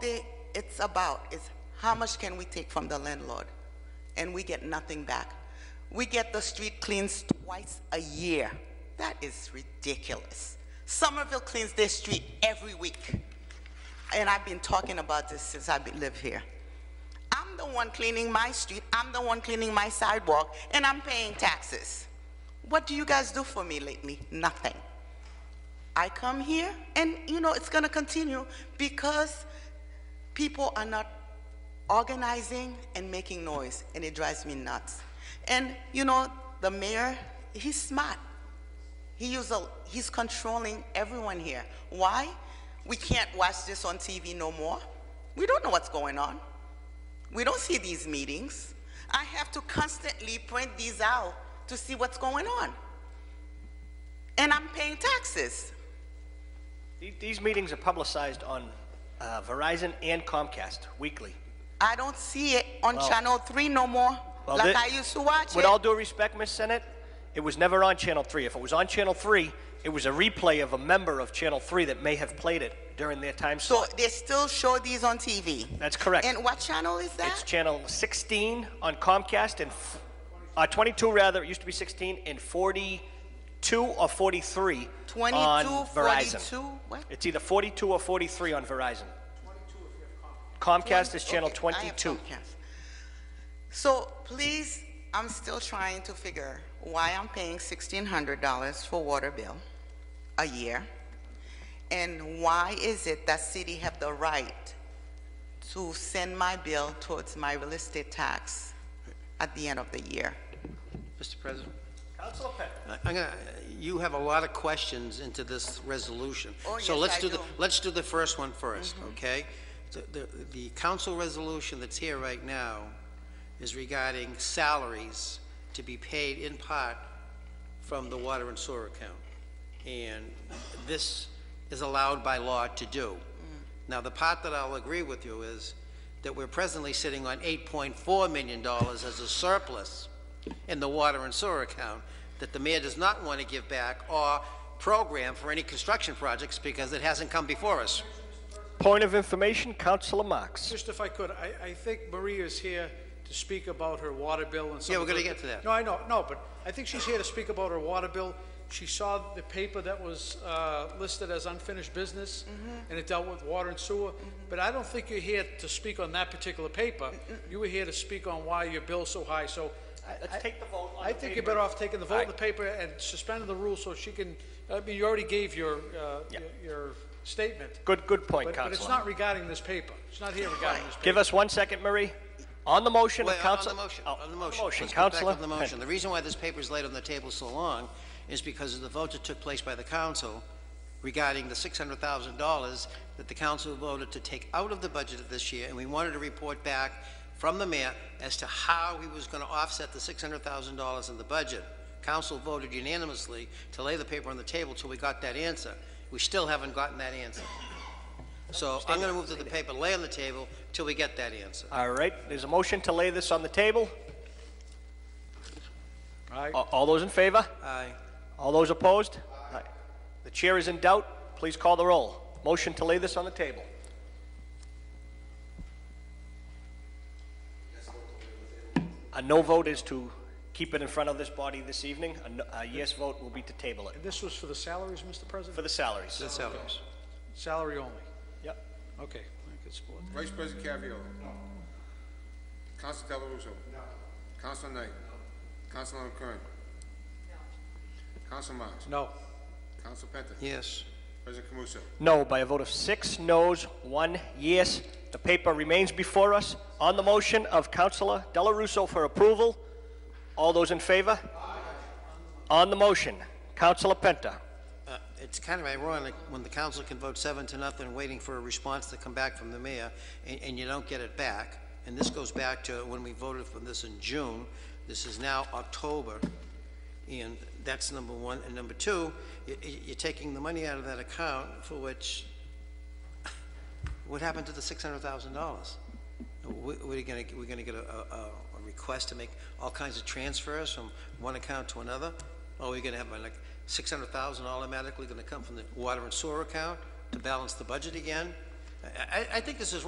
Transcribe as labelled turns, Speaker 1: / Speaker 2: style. Speaker 1: they, it's about is how much can we take from the landlord? And we get nothing back. We get the street cleans twice a year. That is ridiculous. Somerville cleans their street every week. And I've been talking about this since I have live here. I'm the one cleaning my street, I'm the one cleaning my sidewalk, and I'm paying taxes. What do you guys do for me lately? Nothing. I come here, and you know, it's gonna continue because people are not organizing and making noise, and it drives me nuts. And you know, the mayor, he's smart. He use a, he's controlling everyone here. Why? We can't watch this on TV no more. We don't know what's going on. We don't see these meetings. I have to constantly print these out to see what's going on. And I'm paying taxes.
Speaker 2: The- These meetings are publicized on uh, Verizon and Comcast weekly.
Speaker 1: I don't see it on
Speaker 2: Well-
Speaker 1: Channel 3 no more,
Speaker 2: Well,
Speaker 1: like
Speaker 2: thi-
Speaker 1: I used to watch
Speaker 2: With all
Speaker 1: it.
Speaker 2: due respect, Ms. Senate, it was never on Channel 3. If it was on Channel 3, it was a replay of a member of Channel 3 that may have played it during their time
Speaker 1: So
Speaker 2: slot.
Speaker 1: they still show these on TV.
Speaker 2: That's correct.
Speaker 1: And what channel is
Speaker 2: It's
Speaker 1: that?
Speaker 2: Channel 16 on Comcast and, f- uh, 22 rather, it used to be 16, and 42 or 43 on
Speaker 1: 22,
Speaker 2: Verizon.
Speaker 1: 42, what?
Speaker 2: It's either 42 or 43 on Verizon. Comcast is Channel
Speaker 1: Okay, I have
Speaker 2: 22.
Speaker 1: Comcast. So please, I'm still trying to figure why I'm paying $1,600 for water bill a year. And why is it that city have the right to send my bill towards my real estate tax at the end of the year?
Speaker 3: Mr. President,
Speaker 2: Council Pett.
Speaker 3: I- I'm gonna, you have a lot of questions into this resolution.
Speaker 1: Oh,
Speaker 3: So
Speaker 1: yes,
Speaker 3: let's
Speaker 1: I
Speaker 3: the-
Speaker 1: do. Mm-hmm.
Speaker 3: Let's do the first one first, okay? The, the- the council resolution that's here right now is regarding salaries to be paid in part from the water and sewer account. And this is allowed by law to
Speaker 1: Mm.
Speaker 3: do. Now, the part that I'll agree with you is that we're presently sitting on $8.4 million as a surplus in the water and sewer account that the mayor does not want to give back or program for any construction projects because it hasn't come before us.
Speaker 2: Point of information, Councilor Marks.
Speaker 4: Just if I could, I, I think Maria is here to speak about her water bill and some.
Speaker 3: Yeah, we're
Speaker 4: of the-
Speaker 3: gonna get to that.
Speaker 4: No, I know, no, but I think she's here to speak about her water bill. She saw the paper that was, uh, listed as unfinished business, and it dealt with water and sewer, but I don't think you're here to speak on that particular paper. You were here to speak on why your bill's so high, so. I-
Speaker 2: Let's take the vote on
Speaker 4: I
Speaker 2: the
Speaker 4: think you're
Speaker 2: paper.
Speaker 4: better off taking the vote on the
Speaker 2: Alright.
Speaker 4: paper and suspending the rules so she can, I mean, you already gave your, uh,
Speaker 2: Yeah.
Speaker 4: your- your statement.
Speaker 2: Good, good point,
Speaker 4: But, but it's
Speaker 2: Counselor.
Speaker 4: not regarding this paper. It's not here regarding this paper.
Speaker 2: Give us one second, Marie. On the motion of
Speaker 3: Wait,
Speaker 2: Council...
Speaker 3: On the motion,
Speaker 2: Oh,
Speaker 3: on the motion. Let's get back
Speaker 2: Counselor
Speaker 3: on the motion. The
Speaker 2: Pett.
Speaker 3: reason why this paper is laid on the table so long is because of the vote that took place by the council regarding the $600,000 that the council voted to take out of the budget of this year, and we wanted a report back from the mayor as to how he was going to offset the $600,000 in the budget. Council voted unanimously to lay the paper on the table till we got that answer. We still haven't gotten that answer. So I'm going to move to the paper, lay on the table till we get that answer.
Speaker 2: All right, there's a motion to lay this on the table.
Speaker 4: Aye.
Speaker 2: A- All those in favor?
Speaker 3: Aye.
Speaker 2: All those opposed? Aye. The chair is in doubt. Please call the roll. Motion to lay this on the table. A no vote is to keep it in front of this body this evening. A no- A yes vote will be to table it.
Speaker 4: And this was for the salaries, Mr.
Speaker 2: For
Speaker 4: President?
Speaker 2: the salaries.
Speaker 3: The salaries.
Speaker 4: Salary only.
Speaker 2: Yep.
Speaker 4: Okay, I could support that.
Speaker 5: Vice President Caviola. No. Counsel Delarusso. No. Counsel Knight. No. Counsel Kern. No. Counsel Marks.
Speaker 4: No,
Speaker 5: Counsel Penta.
Speaker 3: Yes.
Speaker 5: President Camuso.
Speaker 2: No, by a vote of six noes, one yes. The paper remains before us. On the motion of Councilor Delarusso for approval, all those in favor? On the motion, Councilor Penta.
Speaker 3: Uh, It's kind of ironic when the council can vote seven to nothing, waiting for a response to come back from the mayor, and, and you don't get it back. And this goes back to when we voted for this in June. This is now October, and that's number one. And number two, you, you- you're taking the money out of that account for which, what happened to the six hundred thousand dollars? We- We're gonna, we're gonna get a, a, a- a request to make all kinds of transfers from one account to another? Or we're gonna have uh, like six hundred thousand automatically gonna come from the water and sewer account to balance the budget again? I, I, I think this is